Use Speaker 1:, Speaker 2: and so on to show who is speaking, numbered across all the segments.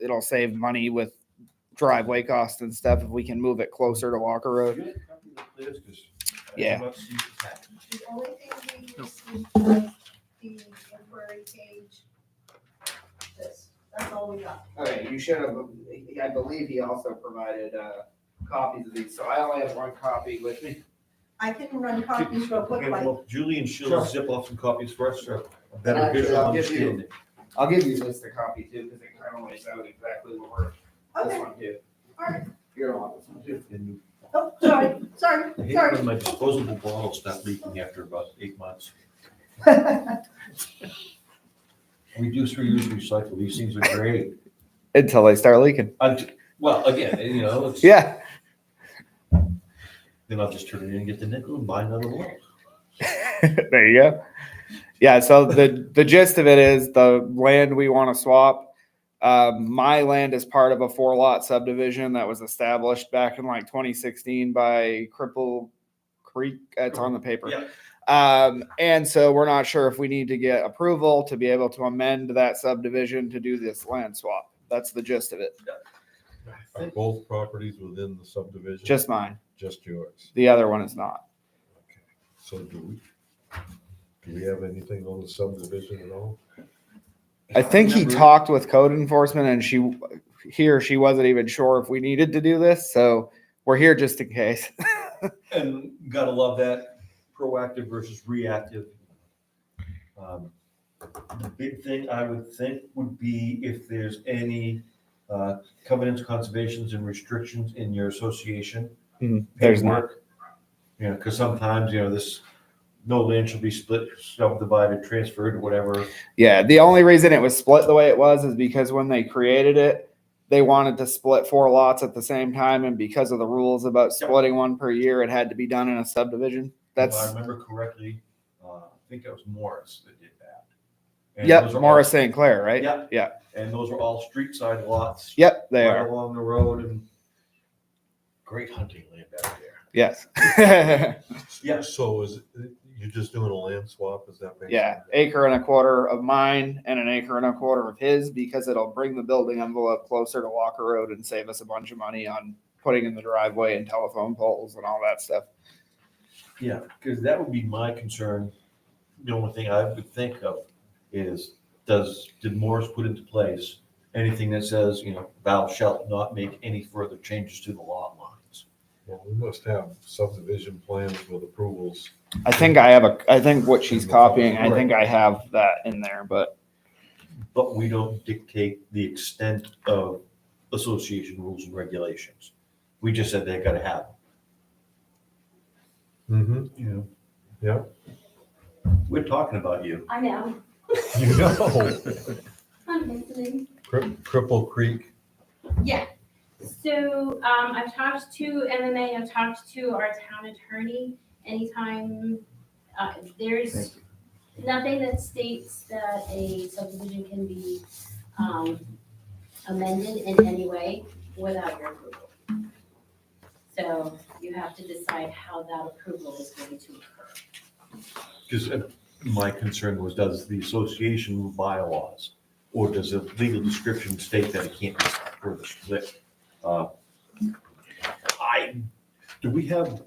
Speaker 1: it'll save money with driveway costs and stuff if we can move it closer to Walker Road. Yeah.
Speaker 2: The only thing we received was the temporary page. This, that's all we got.
Speaker 1: Okay, you should have, I believe he also provided, uh, copies of these, so I only have one copy with me.
Speaker 2: I can run copies real quick,
Speaker 3: Okay,
Speaker 2: like,
Speaker 3: well, Julie and she'll
Speaker 4: Sure.
Speaker 3: zip off some copies for us, so a
Speaker 1: Actually,
Speaker 3: better
Speaker 1: I'll
Speaker 3: visual
Speaker 1: give you-
Speaker 3: understanding.
Speaker 1: I'll give you this to copy too, because it kind of lays out exactly what we're, this
Speaker 2: okay,
Speaker 1: one too.
Speaker 2: all right.
Speaker 1: You're on this one too.
Speaker 3: And
Speaker 2: Oh, sorry, sorry,
Speaker 3: I hate
Speaker 2: sorry.
Speaker 3: when my disposable bottles stop leaking after about eight months. Reduce, reuse, recycle, these things are great.
Speaker 1: Until they start leaking.
Speaker 3: I- Well, again, you know, it's-
Speaker 1: Yeah.
Speaker 3: then I'll just turn it in and get the nickel and buy another one.
Speaker 1: there you go. Yeah. So the the gist of it is the land we want to swap. Um, my land is part of a four lot subdivision that was established back in like 2016 by Cripple Creek. It's on the paper.
Speaker 3: Yeah.
Speaker 1: Um, and so we're not sure if we need to get approval to be able to amend that subdivision to do this land swap. That's the gist of it.
Speaker 5: Are both properties within the subdivision?
Speaker 1: Just mine.
Speaker 5: Just yours.
Speaker 1: The other one is not.
Speaker 5: So do we, do we have anything on the subdivision at all?
Speaker 1: I think he
Speaker 3: Remember-
Speaker 1: talked with code enforcement and she, he or she wasn't even sure if we needed to do this, so we're here just in case.
Speaker 3: And gotta love that proactive versus reactive. Um, The big thing I would think would be if there's any uh, covenants, conservations and restrictions in your association.
Speaker 1: There's not,
Speaker 3: paperwork. You know, because sometimes, you know, this, no land shall be split, subdivided, transferred, whatever.
Speaker 1: yeah, the only reason it was split the way it was is because when they created it, they wanted to split four lots at the same time, and because of the rules about splitting one per year, it had to be done in a subdivision.
Speaker 3: If I
Speaker 1: That's,
Speaker 3: remember correctly, uh, I think that was Morris that did that. And
Speaker 1: yep,
Speaker 3: those are all-
Speaker 1: Morris St. Clair, right?
Speaker 3: Yep.
Speaker 1: Yeah.
Speaker 3: And those were all street side lots.
Speaker 1: Yep, they
Speaker 3: right
Speaker 1: are,
Speaker 3: Along the road and great hunting land out there.
Speaker 1: yes.
Speaker 3: Yeah.
Speaker 5: So is, it- you're just doing a land swap, is that? basically-
Speaker 1: Yeah, acre and a quarter of mine and an acre and a quarter of his because it'll bring the building envelope closer to Walker Road and save us a bunch of money on putting in the driveway and telephone poles and all that stuff.
Speaker 3: Yeah, because that would be my concern. The only thing I would think of is, does, did Morris put into place anything that says, you know, thou shalt not make any further changes to the lot lines?
Speaker 5: Well, we must have subdivision plans with approvals.
Speaker 1: I think I have a, I think what she's copying, I think I have that in there, but
Speaker 3: But we don't dictate the extent of association rules and regulations. We just said they gotta have,
Speaker 5: Mm-hmm,
Speaker 3: them, you know,
Speaker 5: yeah.
Speaker 3: we're talking about you.
Speaker 6: I know,
Speaker 5: You know,
Speaker 6: I'm listening.
Speaker 5: Cri- Cripple Creek,
Speaker 6: Yeah, so, um, I've talked to MMA, I've talked to our town attorney, anytime, uh, there's nothing that states that a subdivision can be, um, amended in any way without your approval. So you have to decide how that approval is going to occur.
Speaker 3: Because uh, my concern was, does the association bylaws or does the legal description state that it can't be further split? Uh, I, do we have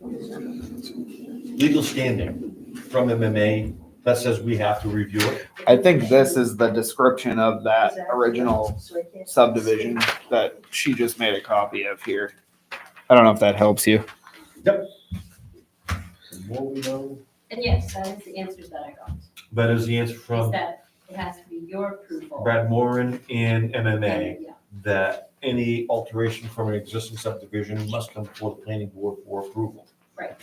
Speaker 3: legal standing from MMA that says we have to review it?
Speaker 1: I think this is the description of that original
Speaker 2: So I can't-
Speaker 1: subdivision that she just made a copy of here. I don't know if that helps you.
Speaker 3: The more we know,
Speaker 6: And yes, that is the answers that I got,
Speaker 3: That is the answer
Speaker 6: is
Speaker 3: from
Speaker 6: that it has to be your approval.
Speaker 3: Brad Moran and MMA.
Speaker 6: Yeah.
Speaker 3: that any alteration from an existing subdivision must come before the planning board for approval.
Speaker 6: Right.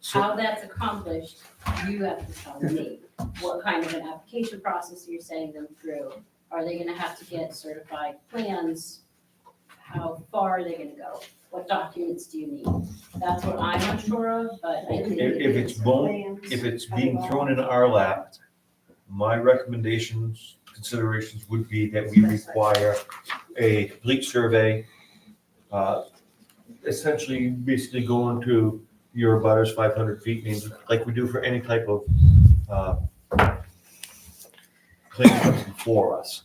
Speaker 3: So-
Speaker 6: How that's accomplished, you have to tell me. What kind of an application process you're sending them through? Are they gonna have to get certified plans? How far are they gonna go? What documents do you need? That's what I'm unsure of, but I
Speaker 3: If,
Speaker 6: think.
Speaker 3: if it's bone,
Speaker 2: Plans.
Speaker 3: if it's being thrown in our lap, my recommendations, considerations would be that we require a complete survey. uh, Essentially, basically going to your butters five hundred feet means, like we do for any type of, uh, claim comes before us.